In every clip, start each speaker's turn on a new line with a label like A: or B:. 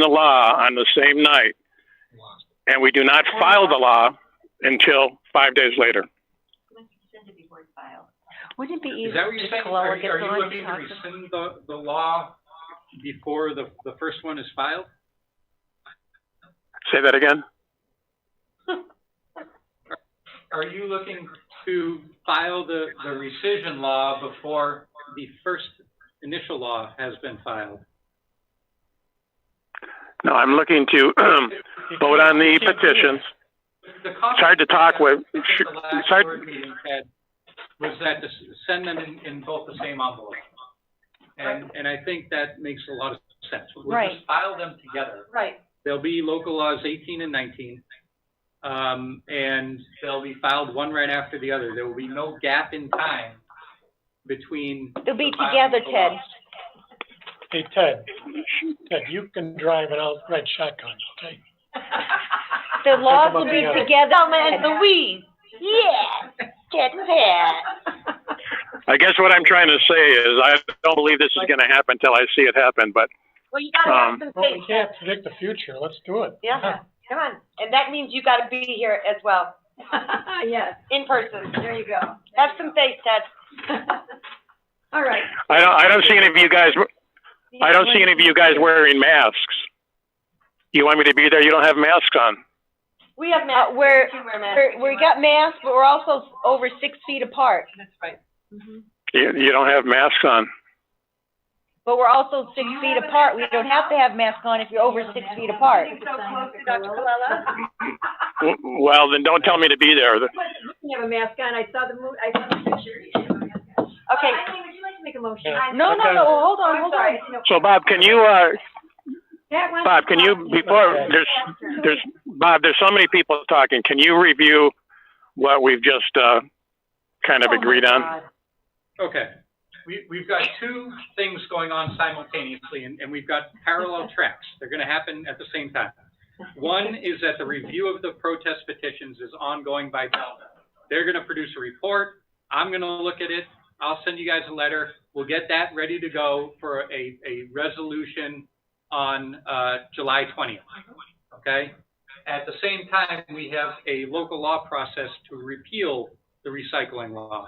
A: the law on the same night, and we do not file the law until five days later.
B: Wouldn't it be
C: Is
B: easier
C: that what you're
B: if
C: saying?
B: Coloa
C: Are you,
B: gets
C: are you
B: on
C: looking
B: and
C: to
B: talks to-
C: rescind the, the law before the, the first one is filed?
A: Say that again?
C: Are you looking to file the, the rescission law before the first initial law has been filed?
A: No, I'm looking to vote on the petitions.
C: The cost-
A: It's hard to talk with-
C: The last
A: it's hard-
C: board meeting had- Was that to s- send them in, in both the same envelope. And, and I think that makes a lot of sense. We'll
B: Right.
C: just file them together.
B: Right,
C: There'll be local laws eighteen and nineteen. Um, and they'll be filed one right after the other. There will be no gap in time between.
B: they'll be
C: the filing of
B: together,
C: the
B: Ted.
C: laws.
D: Hey, Ted, Ted, you can drive an outright shotgun, okay?
B: The laws
D: about
B: will be
D: the, uh,
B: together.
E: Thelma and Louise. Yeah, get that.
A: I guess what I'm trying to say is I don't believe this is going to happen until I see it happen, but
E: Well, you gotta have
A: Um,
E: some
D: Well, we
E: faith.
D: can't predict the future, let's do it.
B: Yeah,
E: Come on, and that means you gotta be here as well,
F: Ah,
B: yes,
E: in person.
B: there you go.
E: Have some faith, Ted.
B: All right.
A: I don't, I don't see any of you guys, I don't see any of you guys wearing masks. You want me to be there? You don't have masks on.
E: We have
B: Uh,
E: masks.
B: we're,
E: You wear
B: we're,
E: masks.
B: we got masks, but we're also over six feet apart,
E: That's right.
F: Mm-hmm.
A: You, you don't have masks on.
B: but we're also six feet apart. We don't have to have masks on if you're over six feet apart.
E: So close to Dr. Colella.
A: W- Well, then don't tell me to be there.
F: You have a mask on, I saw the mo- I saw the picture.
B: Okay,
F: Uh, Eileen, would you like to make a motion?
D: Yeah.
B: no, no, no, hold on, hold on.
A: So Bob, can you, uh,
F: That one.
A: Bob, can you, before, there's, there's, Bob, there's so many people talking. Can you review what we've just, uh, kind of agreed on?
C: Okay, we, we've got two things going on simultaneously and, and we've got parallel tracks. They're gonna happen at the same time. One is that the review of the protest petitions is ongoing by Delta. They're gonna produce a report, I'm gonna look at it, I'll send you guys a letter. We'll get that ready to go for a, a resolution on, uh, July twentieth, okay? At the same time, we have a local law process to repeal the recycling law.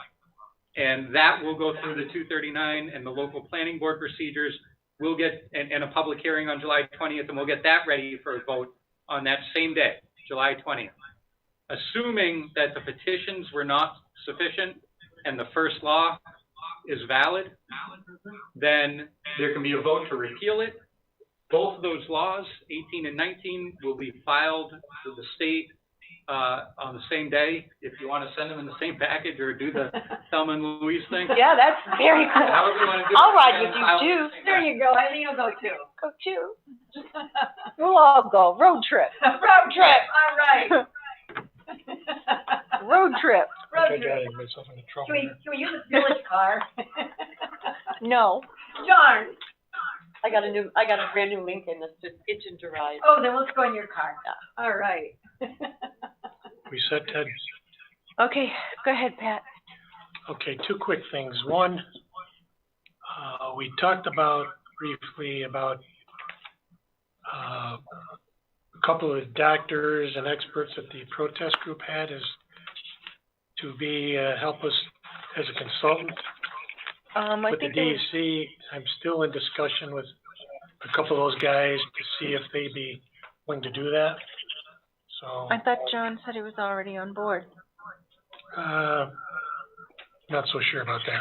C: And that will go through the two thirty-nine and the local planning board procedures. We'll get, and, and a public hearing on July twentieth, and we'll get that ready for a vote on that same day, July twentieth. Assuming that the petitions were not sufficient and the first law is valid, then there can be a vote to repeal it. Both of those laws, eighteen and nineteen, will be filed to the state, uh, on the same day. If you want to send them in the same package or do the Thelma and Louise thing.
B: Yeah, that's very cool.
C: However you want to do it.
B: I'll ride with
C: And I'll-
B: you too.
F: There you go, Eileen will go too.
B: Go too. We'll all go, road trip,
F: Road trip, all right.
B: road trip.
D: I
F: Road
D: think I
F: trip.
D: got myself into trouble
F: Can we,
D: there.
F: can we use a village car?
B: No,
F: Darn,
E: I got a new, I got a brand new Lincoln that's just itching to ride.
F: oh, then let's go in your car. All right.
D: We said, Ted,
B: okay, go ahead, Pat.
D: okay, two quick things. One, uh, we talked about briefly about, uh, a couple of doctors and experts that the protest group had is to be, uh, help us as a consultant
B: Um, I
D: with the
B: think, there was-
D: DEC, I'm still in discussion with a couple of those guys to see if they'd be willing to do that. So,
B: I thought John said he was already on board.
D: uh, not so sure about that.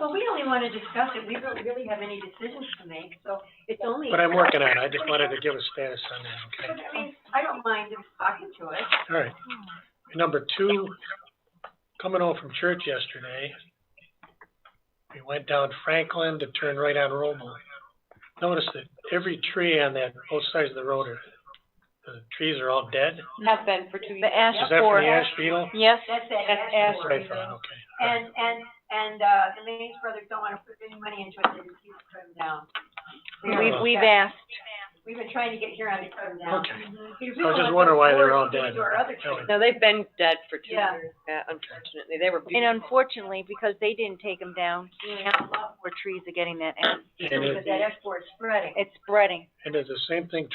F: Well, we only want to discuss it, we don't really have any decisions to make, so it's only.
D: But I'm working on it. I just wanted to give a status on that,
F: But
D: okay?
F: I mean, I don't mind him talking to us.
D: All right. Number two, coming home from church yesterday, we went down Franklin to turn right on Romo. Noticed that every tree on that, both sides of the road are, the trees are all dead.
E: Have been for two years.
B: The ash
D: Is that from the
B: forest,
D: ash beetle?
B: yes,
F: That's it.
E: That's
F: That's
D: That's
F: the
D: what I
F: word.
D: thought, okay.
F: And, and, and, uh, the Manning brothers don't wanna put any money into it, they just keep putting them down.
B: we,
D: Yeah.
B: we've asked.
F: We've been trying to get here on from now.
D: Okay.
F: Because
D: I
F: we
D: was
F: don't
D: just
F: want
D: wondering why they're
F: those
D: all dead.
F: boards to
D: Oh,
F: do our other
D: Anyway.
F: things.
E: No, they've been dead for two
F: Yeah.
E: years, yeah, unfortunately. They were
B: And
E: beautiful.
B: unfortunately, because they didn't take them down, more trees are getting that, and
D: And it-
F: Because that export spreading.
B: it's spreading.
D: And it's the same thing